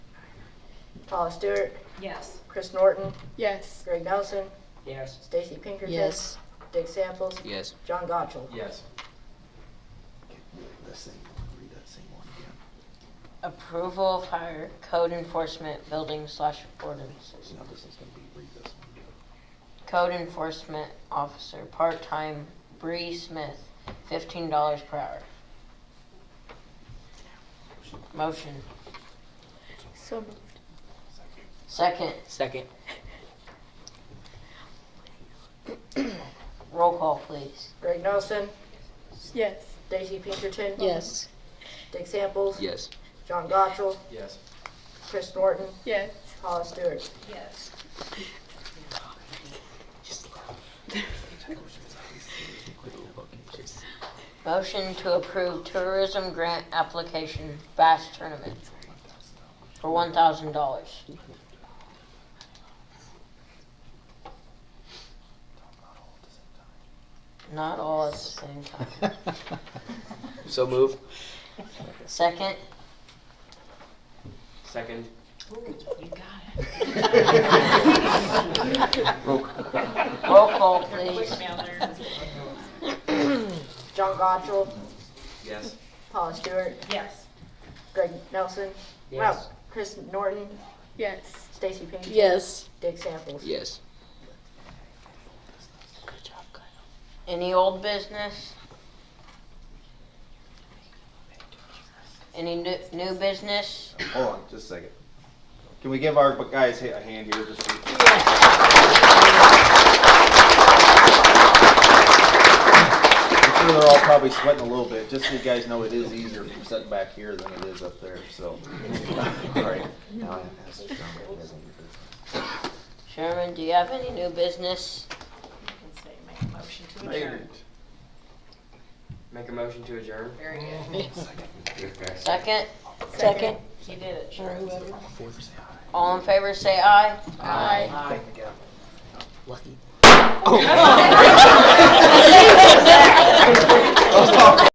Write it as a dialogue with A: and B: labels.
A: Paula Stewart,
B: Yes.
A: Chris Norton,
C: Yes.
A: Greg Nelson,
D: Yes.
A: Stacy Pinkerton.
E: Yes.
A: Dick Samples,
F: Yes.
A: John Gottschall.
D: Yes.
G: That same, read that same one again.
E: Approval of higher code enforcement building slash ordinances.
G: Now this is gonna be, read this one again.
E: Code enforcement officer, part-time, Bree Smith, fifteen dollars per hour. Motion.
C: So moved.
E: Second,
F: Second.
E: roll call, please.
A: Greg Nelson,
C: Yes.
A: Stacy Pinkerton.
E: Yes.
A: Dick Samples.
F: Yes.
A: John Gottschall,
D: Yes.
A: Chris Norton,
C: Yes.
A: Paula Stewart.
B: Yes.
E: Motion to approve tourism grant application bass tournament for one thousand dollars. Not all at the same time.
F: So move.
E: Second,
F: Second.
B: You got it.
E: roll call please.
A: John Gottschall,
F: Yes.
A: Paula Stewart,
B: Yes.
A: Greg Nelson.
F: Yes.
A: Wow, Chris Norton,
C: Yes.
A: Stacy Pinkerton.
E: Yes.
A: Dick Samples.
F: Yes.
E: Any old business? Any new, new business?
H: Hold on, just a second. Can we give our guys a hand here just for- I'm sure they're all probably sweating a little bit, just so you guys know it is easier from sitting back here than it is up there, so. All right.
G: Now I have to ask John what he has on your business.
E: Sherman, do you have any new business?
B: Let's say, make a motion to adjourn.
F: Make a motion to adjourn.
B: Very good.
E: Second?
C: Second.
E: You did it, Sherman.
G: Four, say aye.
E: All in favor, say aye.
C: Aye.
G: Lucky.